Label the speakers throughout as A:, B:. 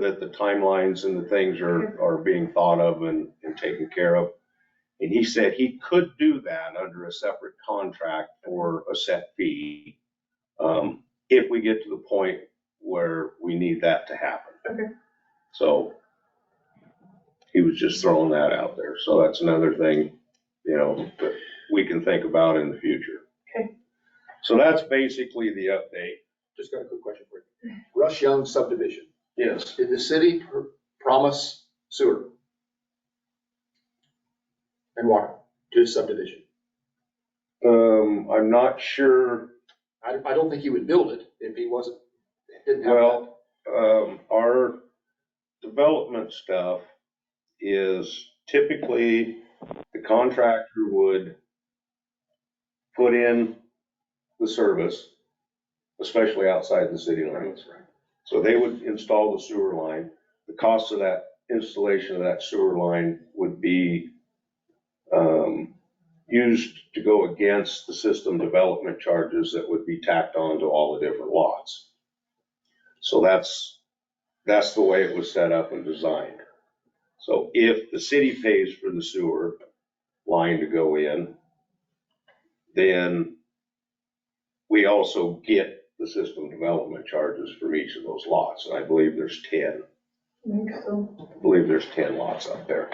A: that the timelines and the things
B: Mm-hmm.
A: are, are being thought of and, and taken care of. And he said he could do that under a separate contract for a set fee. Um, if we get to the point where we need that to happen.
B: Okay.
A: So he was just throwing that out there. So that's another thing, you know, that we can think about in the future.
B: Okay.
A: So that's basically the update.
C: Just got a quick question for you. Rush Young subdivision,
A: Yes.
C: did the city pr- promise sewer? And water to the subdivision?
A: Um, I'm not sure,
C: I, I don't think he would build it if he wasn't, didn't have that.
A: well, um, our development stuff is typically the contractor would put in the service, especially outside the city limits. So they would install the sewer line. The cost of that installation of that sewer line would be um, used to go against the system development charges that would be tacked on to all the different lots. So that's, that's the way it was set up and designed. So if the city pays for the sewer line to go in, then we also get the system development charges from each of those lots. And I believe there's 10,
B: So,
A: I believe there's 10 lots up there.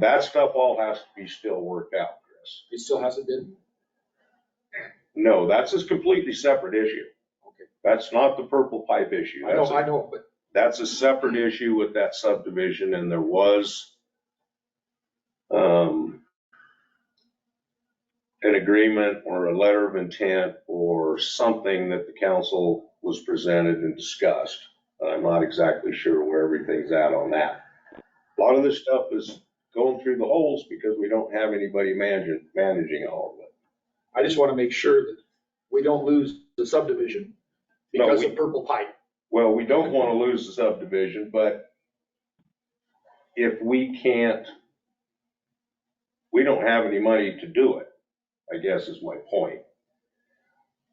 A: That stuff all has to be still worked out, Chris.
C: It still hasn't been?
A: No, that's a completely separate issue.
C: Okay.
A: That's not the purple pipe issue.
C: I know,
A: That's a-
C: I know, but
A: That's a separate issue with that subdivision and there was um, an agreement or a letter of intent or something that the council was presented and discussed. I'm not exactly sure where everything's at on that. A lot of this stuff is going through the holes because we don't have anybody managing, managing all of it.
C: I just want to make sure that we don't lose the subdivision
A: No,
C: because
A: we-
C: of purple pipe.
A: Well, we don't want to lose the subdivision, but if we can't, we don't have any money to do it, I guess is my point.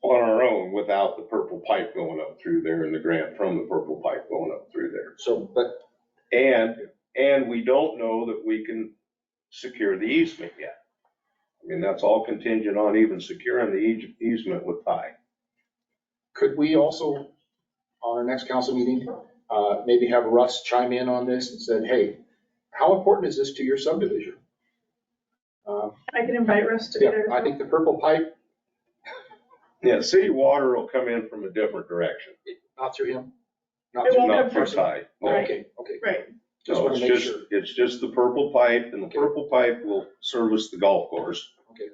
A: On our own, without the purple pipe going up through there and the grant from the purple pipe going up through there.
C: So, but
A: And, and we don't know that we can secure the easement yet. I mean, that's all contingent on even securing the eas- easement with Ty.
C: Could we also, on our next council meeting, uh, maybe have Russ chime in on this and said, hey, how important is this to your subdivision? Uh,
B: I can invite Russ to be
C: Yeah,
B: there. as
C: I
B: well.
C: think the purple pipe,
A: Yeah, city water will come in from a different direction,
C: not through him. not
B: It
C: through-
B: won't
A: not through
C: come from-
A: Ty. No.
B: Right.
C: Okay, okay.
B: Right,
C: Just
A: No,
C: want
A: it's
C: to make
A: just,
C: sure.
A: it's just the purple pipe and the purple pipe will service the golf course.
C: Okay.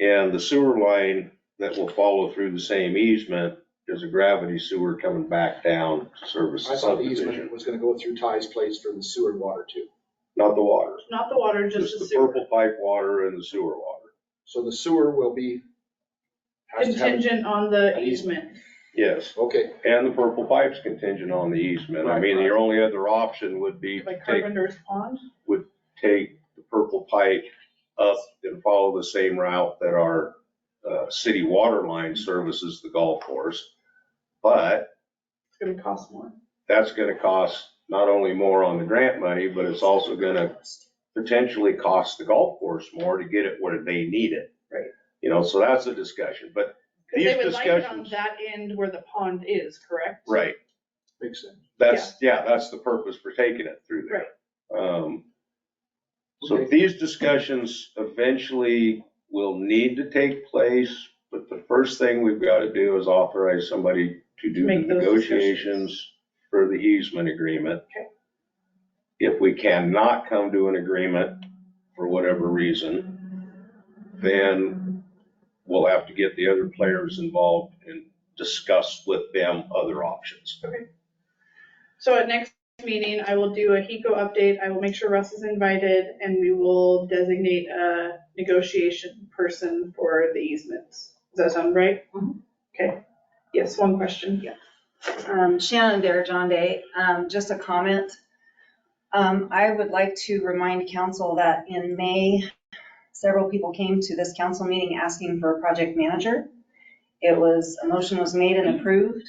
A: And the sewer line that will follow through the same easement is a gravity sewer coming back down to service
C: I
A: the
C: thought the
A: subdivision,
C: easement was going to go through Ty's place for the sewer and water too.
A: not the water.
B: not the water, just
A: Just
B: the
A: the
B: sewer.
A: purple pipe water and the sewer water.
C: So the sewer will be. has to have-
B: Contingent on the easement.
A: Yes,
C: Okay,
A: and the purple pipe's contingent on the easement. I
C: Right,
A: mean,
C: right.
A: your only other option would be to
B: Like
A: take,
B: Carpenter's Pond,
A: take the purple pipe up and follow the same route that our uh, city water line services the golf course. But
B: it's gonna cost more.
A: that's gonna cost not only more on the grant money, but it's also gonna potentially cost the golf course more to get it where they need it.
B: Right.
A: You know, so that's a discussion, but,
B: Because they
A: These
B: would like it on
A: discussions-
B: that end where the pond is, correct?
A: right,
C: makes sense.
A: that's, yeah, that's the purpose for taking it through there. Um, So
C: Okay.
A: these discussions eventually will need to take place, but the first thing we've got to do is authorize somebody to do the
B: Make those
A: negotiations for the easement agreement.
B: Okay.
A: If we cannot come to an agreement for whatever reason, then we'll have to get the other players involved and discuss with them other options.
B: So at next meeting, I will do a HECO update, I will make sure Russ is invited, and we will designate a negotiation person for the easements. Does that sound right? Okay, yes, one question, yeah.
D: Um, Shannon there, John Day, um, just a comment. Um, I would like to remind council that in May, several people came to this council meeting asking for a project manager. It was, a motion was made and approved,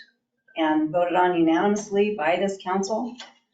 D: and voted on unanimously by this council.